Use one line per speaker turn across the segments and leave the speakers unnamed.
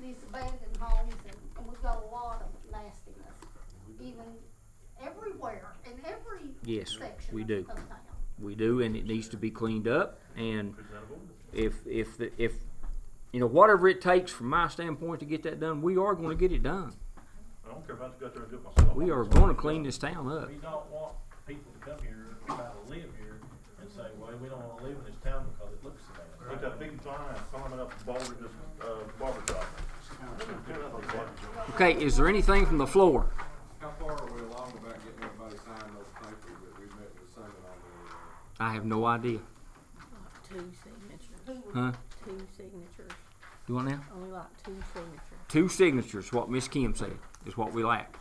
these abandoned homes and, and we've got a lot of nastiness, even everywhere, in every
Yes,
section
we
of-
do.
of town.
We do, and it needs to be cleaned up. And if if the, if you know whatever it takes from my standpoint to get that done, we are going to get it done.
I don't care if I have to go out there and do it myself.
We are
I'm just
going to clean
do it.
this town up.
We don't want people to come here, try to live here and say, well, we don't wanna live in this town because it looks bad. Look that big sign, climbing up Barber, this, uh, barber shop.
Okay, is there anything from the floor?
How far are we along about getting everybody signed those papers that we met with Simon on the,
I have no idea.
Like two signatures,
Who would
Huh?
two signatures,
Do what now?
only like two signatures.
Two signatures. What Miss Kim said is what we lack.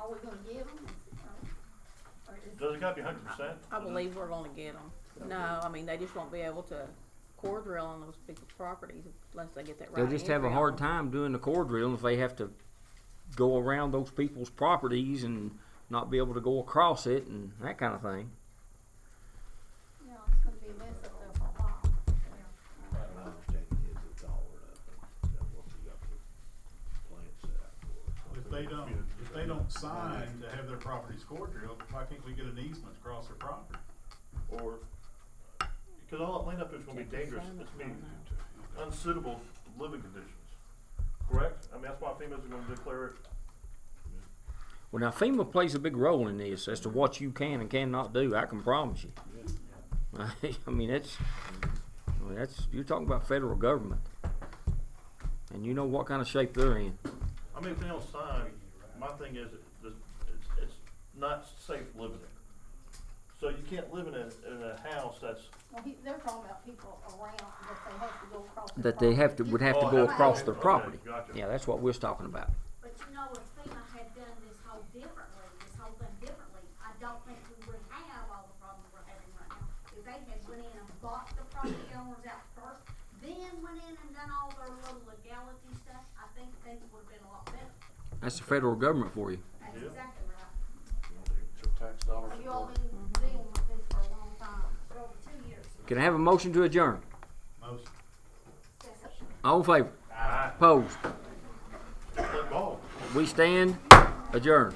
Are we gonna give them? Or- or is-
Does it gotta be hundred percent?
I believe we're gonna get them. No, I mean, they just won't be able to core drill on those people's properties unless they get that right.
They'll just have a
entry
hard
on.
time doing the core drill if they have to go around those people's properties and not be able to go across it and that kind of thing.
You know, it's gonna be a mess up there for a while.
My understanding is it's all up, and that what we got the plant set up for.
If they don't, if they don't sign to have their properties core drilled, why can't we get an easement across their property?
Or, cause all that land up there's gonna be dangerous, it's gonna be unsuitable living conditions, correct? I mean, that's why FEMA's gonna declare it
Well, now FEMA plays a big role in this as to what you can and cannot do. I can promise you. I mean, that's, I mean, that's you're talking about federal government, and you know what kind of shape they're in.
I mean, if they don't sign, my thing is, that it's, it's not safe living there. So you can't live in a, in a house that's,
Well, he, they're talking about people around that they have to go across. their
That they have to
property.
would have to
Oh,
go
okay,
across their
okay,
property.
gotcha.
Yeah, that's what we're talking about.
But you know, if FEMA had done this whole differently, this whole thing differently, I don't think we would have all the problems we're having right now. If they had went in and bought the property owners out first, then went in and done all their little legality stuff, I think things would've been a lot better.
That's the federal government for you.
That's
Yeah.
exactly right.
tax dollars.
You all been dealing with this for a long time.
For over two years.
Can I have a motion to adjourn?
Most
All in favor?
ah,
Opposed?
play ball.
We stand adjourned.